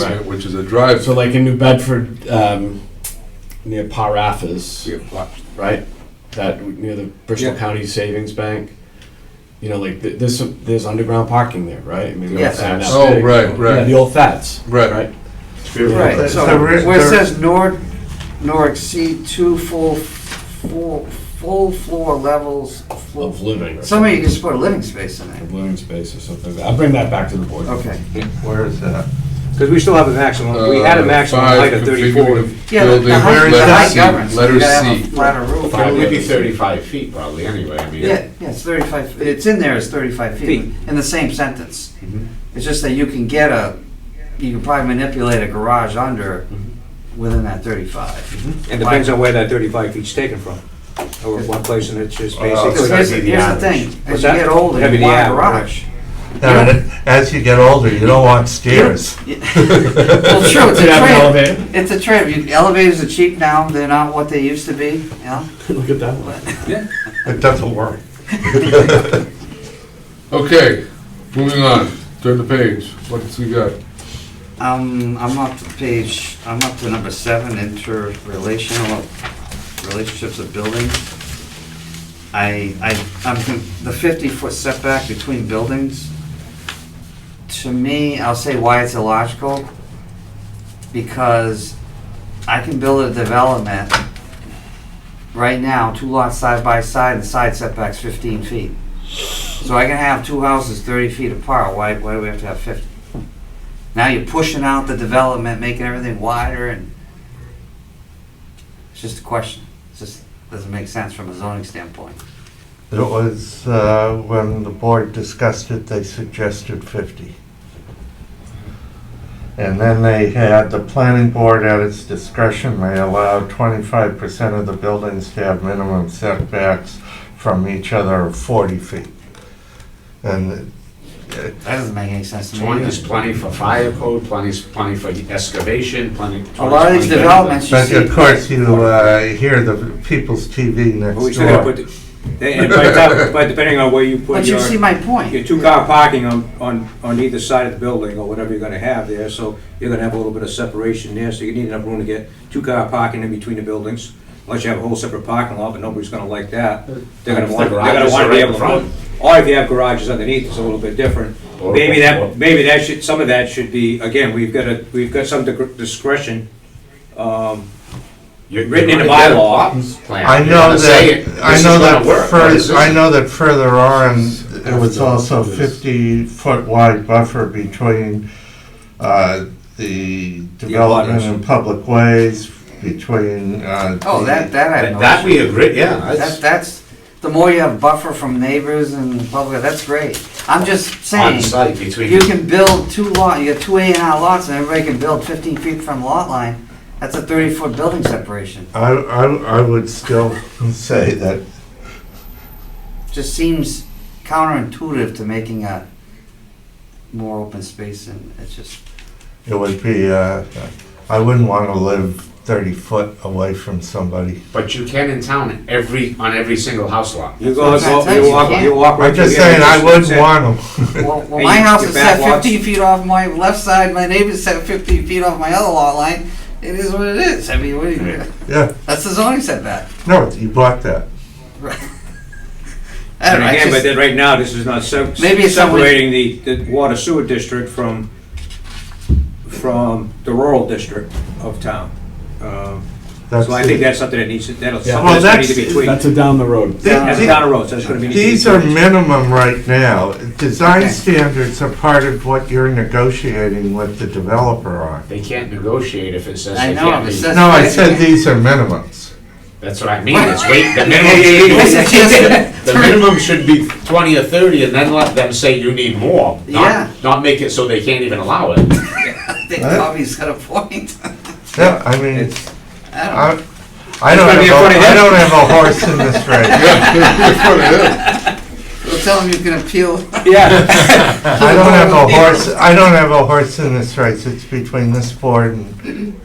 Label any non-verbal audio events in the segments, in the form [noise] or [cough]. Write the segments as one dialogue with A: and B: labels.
A: basement, which is a drive.
B: So like in New Bedford, um, near Parafas,
A: Yeah, lot.
B: right? That near the Bristol
A: Yeah.
B: County Savings Bank. You know, like th- there's some, there's underground parking there, right? I mean, we don't
C: Yes.
B: have that
A: Oh,
B: big.
A: right, right.
B: Yeah, the old Fats,
A: Right.
B: right?
C: Right,
D: It's the
C: so
D: re-
C: where it
D: the-
C: says nor, nor exceed two full, full, full floor levels. full-
B: Of living. or
C: Somebody can just put a living space in there.
B: something. Of living space or something. I'll bring that back to the board.
C: Okay.
D: Where is that?
E: Because we still have a maximum, we had a
A: Uh,
E: maximum
A: five
E: height of
A: configured
E: 34.
C: Yeah, the-
A: building,
C: the height, the
A: letter
C: height
A: C,
C: governs.
A: Letter
C: You gotta have a
A: C.
C: Flatter roof.
B: Five.
F: It would be thirty-five feet probably, anyway, I mean.
C: Yeah, yeah, it's thirty-five, it's in there as thirty-five feet,
E: Feet.
C: in the same sentence.
A: Mm-hmm.
C: It's just that you can get a, you can probably manipulate a garage under
A: Mm-hmm.
C: within that thirty-five.
E: And depends on where that 35 feet's taken from. Or one place and it's
F: Uh,
E: just basically.
C: Because here's the here's the thing, as
E: What's
C: you
E: that?
C: get older,
E: That'd be
C: you
E: the
C: want a
E: average.
C: garage.
D: No, and As you get older, you don't want stairs.
C: Well, true,
B: [laughs]
C: it's
B: Did I have an
C: a trade,
B: elevator?
C: it's a trade, You- elevators are cheap now, they're not what they used to be, you know?
B: Look at that one.
D: It doesn't work.
A: Okay, moving on, turn the page, what's we got? [laughs]
C: Um, I'm up to page, I'm up to number seven, interrelational, relationships of buildings. I, I, I'm, con- the fifty-foot setback between buildings, to me, I'll say why it's illogical, because I can build a development right now, two lots side by side, and the side setback's fifteen feet. So I can have two houses thirty feet apart, why, why do we have to have fifty? Now you're pushing out the development, making everything wider and it's just a question. It just doesn't make sense from a zoning standpoint.
D: It was, uh, when the board discussed it, they suggested 50. And then they had, the planning board at its discretion may allow 25% of the buildings to have minimum setbacks from each other of 40 feet. And it
C: That doesn't make any sense to me.
F: Twenty is
C: either.
F: plenty for fire code, plenty is plenty for excavation, plenty.
C: A lot of these
F: 20
C: developments you
D: But
C: see.
D: of course, you uh, hear the people's TV
E: But we
D: next
E: still gotta put,
D: door.
E: the- they- and by the time- by depending on where you
C: But
E: put
C: you see
E: your,
C: my point.
E: your two-car parking on, on, on either side of the building or whatever you're gonna have there, so you're gonna have a little bit of separation there, so you need enough room to get two-car parking in between the buildings. Unless you have a whole separate parking lot, but nobody's gonna like that. They're gonna
F: If the
E: want, they're gonna
F: garages
E: wanna
F: are
E: be
F: right
E: able to
F: in front.
E: put, or if you have garages underneath, it's a little bit different.
F: Or-
E: Maybe
F: or-
E: that, maybe that should, some of that should be, again, we've got a, we've got some discretion, um,
F: You're-
E: Written in
F: you're
E: the
F: gonna get a
E: bylaw.
F: Plotting plan.
D: I
F: You're
D: know
F: gonna say
D: that,
F: it,
D: I
F: this is
D: know
F: gonna
D: that
F: work, but this
D: further, I
F: isn't.
D: know that further on, it was also fifty foot wide buffer between uh, the development
E: abutments.
D: and public ways, between. uh,
C: Oh, that,
D: the-
C: that I
F: That
C: know.
F: that we agree, yeah,
C: That,
F: that's
C: that's, the more you have buffer from neighbors and public, that's great. I'm just
F: on
C: saying,
F: site between.
C: you can build two lot, you got two A and R lots and everybody can build fifteen feet from lot line. That's a thirty foot building separation.
D: I, I, I would still [laughs] say that
C: just seems counterintuitive to making a more open space and it's just
B: [laughs]
D: it would be, uh, I wouldn't want to live thirty foot away from somebody.
F: But you can in town, every, on every single house lot.
E: You go,
C: That's what I'm
E: you
C: saying,
E: walk,
C: you
E: you walk right
D: I'm
E: through
D: just
E: there.
D: saying, I wouldn't
E: That's it.
D: want them.
C: well, well
E: Hey,
C: my house
E: your
C: is set
E: back walks-
C: 15 feet off my left side my neighbor's set 15 feet off my other lot line it is what it is i mean what do you,
D: [laughs] Yeah,
C: [laughs] that's the zoning setback
D: no, you bought that.
C: I don't
E: And
C: know, I
E: again, but
C: just-
E: then right now, this is not sep-
C: Maybe it's something-
E: separating the, the water sewer district from, from the rural district of town. Um,
D: That's
E: So I think that's something that needs, to- that'll,
B: Yeah.
E: something
D: Well,
E: that's gonna need to be
D: that's-
E: tweaked.
B: That's a down the road.
E: That's down the road, so that's gonna be. need to be
D: These are
E: tweaked.
D: minimum right now. Design
C: Okay.
D: standards are part of what you're negotiating with the developer on.
F: They can't negotiate if it says
C: I
F: they
C: know,
F: can't
C: it
F: be.
C: says-
D: No, I said these are minimums.
F: That's what I mean, it's wait,
C: [laughs]
F: the minimum
C: Yeah, yeah, yeah, yeah.
F: should
C: [laughs]
F: be, [laughs] the minimum should be twenty or thirty, and then let them say you need more. Not-
C: Yeah.
F: Not make it so they can't even allow it.
C: i think tommy's got a point [laughs]
D: Yeah, I mean,
C: I don't know.
D: I, I don't
E: gonna
D: have,
E: be a funny
D: a- I
E: day.
D: don't have a horse
C: [laughs]
D: in this race.
A: That's what it is.
C: Well, tell him you can appeal
E: Yeah,
D: [laughs] I don't have a horse, I don't have a horse in this race. It's between this board and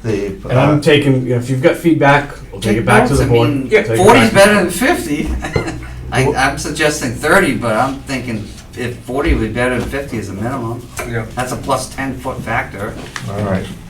D: the,
B: And I'm
D: uh,
B: taking, if you've got feedback, we'll take it back to the
C: notes, I
B: board.
C: mean,
B: Take it back
C: 40 is
B: to the
C: [laughs] better
B: board.
C: than 50 I, i'm suggesting 30 but i'm thinking if forty would be better than fifty is a minimum.
E: Yeah.
C: That's a plus ten foot factor.
D: All right.